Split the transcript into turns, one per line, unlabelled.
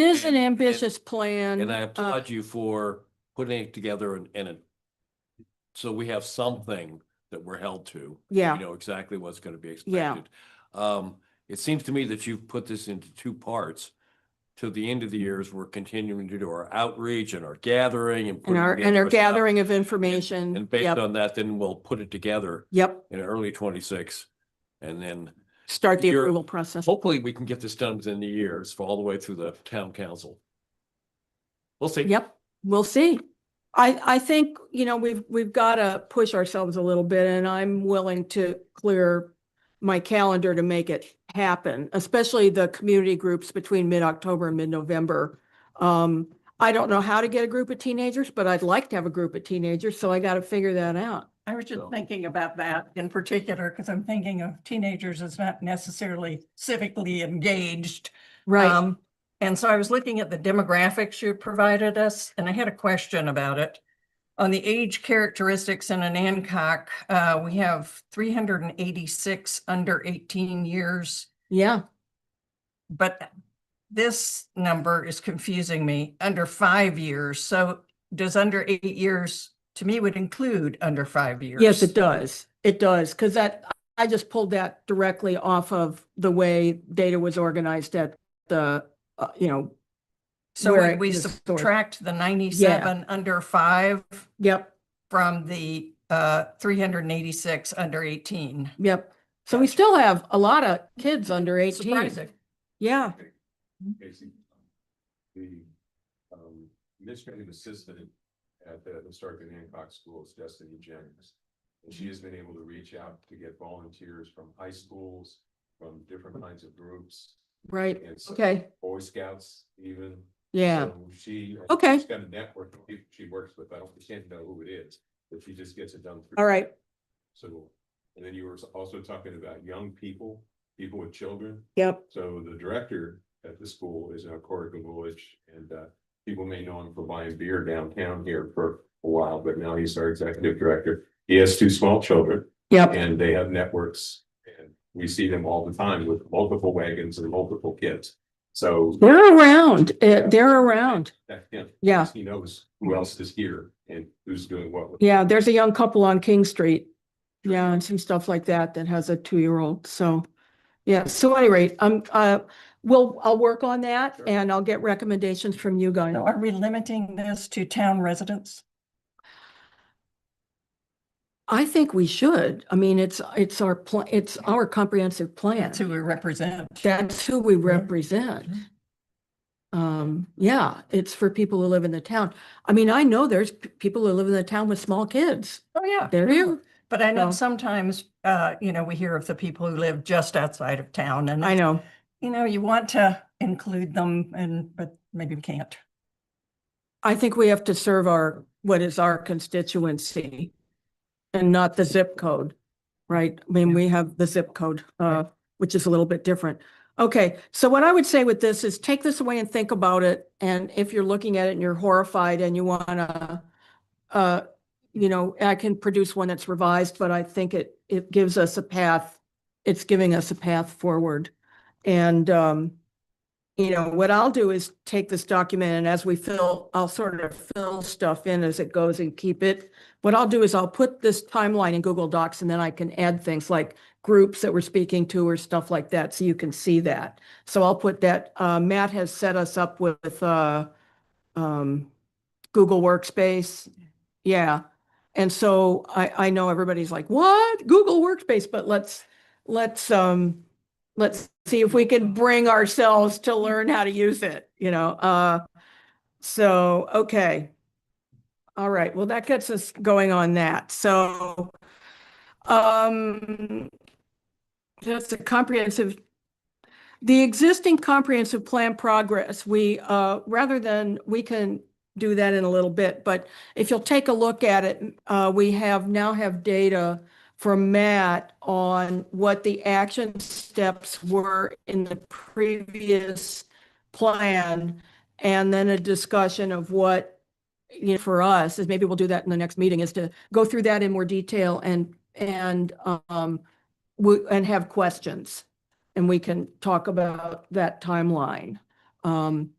It is an
And- and-
ambitious plan.
And I
uh,
applaud you for putting it together and, and it- so we have something that we're held to.
Yeah.
You know exactly what's going to be
Yeah.
expected. Um, it seems to me that you've put this into two parts. To the end of the years, we're continuing to do our outreach and our gathering and.
And
putting
our, and
together
our
stuff.
gathering of
And-
information.
And based
Yep,
on that, then we'll put it together
yep.
in early twenty-six. And then
Start the
You're-
approval process.
hopefully we can get this done within the years, all the way through the town council. We'll see.
Yep, we'll see. I, I think, you know, we've, we've got to push ourselves a little bit and I'm willing to clear my calendar to make it happen, especially the community groups between mid-October and mid-November. Um, I don't know how to get a group of teenagers, but I'd like to have a group of teenagers, so I got to figure that out.
I was just
So-
thinking about that in particular, because I'm thinking of teenagers as not necessarily civically engaged.
Right,
Um, And so I was looking at the demographics you provided us, and I had a question about it. On the age characteristics in Anancock, uh, we have three hundred and eighty-six under eighteen years.
yeah,
But this number is confusing me, under five years. So does under eight years, to me, would include under five years?
yes, it does. It does, because that, I just pulled that directly off of the way data was organized at the, uh, you know,
So
where it
would we
is stored.
subtract the ninety-seven under five
yep,
from the uh three hundred and eighty-six under eighteen?
Yep. So we
Gotcha.
still have a lot of kids under eighteen.
Surprising.
Yeah,
Casey, um, the um, administrative assistant at the historic and Hancock Schools, Destiny Jennings. And she has been able to reach out to get volunteers from high schools, from different kinds of groups,
right.
and s-
Okay,
Boy Scouts even.
yeah.
So She.
Okay.
She's got a network of people she works with. I don't, we can't know who it is, but she just gets it done. through-
All right.
So, and then you were also talking about young people, people with children.
Yep.
So the director at the school is now Corey Gavulich, and uh, people may know him for buying beer downtown here for a while, but now he's our executive director. He has two small children
Yep.
and they have networks and we see them all the time with multiple wagons and multiple kids. So
They're around. Uh, They're around.
that, yeah,
Yeah,
he knows who else is here and who's doing what. with-
yeah. There's a young couple on King Street. Yeah, and some stuff like that that has a two-year-old. So, yeah. So at any rate, I'm, uh, we'll, I'll work on that
Sure.
and I'll get recommendations from you guys.
So are we limiting this to town residents?
I think we should. I mean, it's, it's our, pla- it's our comprehensive plan.
That's who we represent.
That's who we
Yeah. Mm-hmm.
represent. Um, yeah, it's for people who live in the town. I mean, I know there's p- people who live in the town with small kids.
Oh, yeah.
They're here.
But I know
So-
sometimes, uh, you know, we hear of the people who live just outside of town and,
I know.
you know, you want to include them and, but maybe we can't.
I think we have to serve our, what is our constituency and not the zip code, right? I mean, we have the zip code, uh, which is a little bit different. Okay, so what I would say with this is take this away and think about it. And if you're looking at it and you're horrified and you wanna, uh, you know, I can produce one that's revised, but I think it, it gives us a path. It's giving us a path forward. And, um, you know, what I'll do is take this document and as we fill, I'll sort of fill stuff in as it goes and keep it. What I'll do is I'll put this timeline in Google Docs and then I can add things like groups that we're speaking to or stuff like that, so you can see that. So I'll put that, uh, Matt has set us up with, uh, um, Google Workspace. Yeah. And so I, I know everybody's like, what? Google Workspace, but let's, let's, um, let's see if we can bring ourselves to learn how to use it, you know, uh, so, okay. All right, well, that gets us going on that, so, um, that's a comprehensive, the existing comprehensive plan progress, we, uh, rather than, we can do that in a little bit, but if you'll take a look at it, uh, we have, now have data from Matt on what the action steps were in the previous plan, and then a discussion of what, you know, for us, is maybe we'll do that in the next meeting, is to go through that in more detail and, and, um, we, and have questions. And we can talk about that timeline. Um,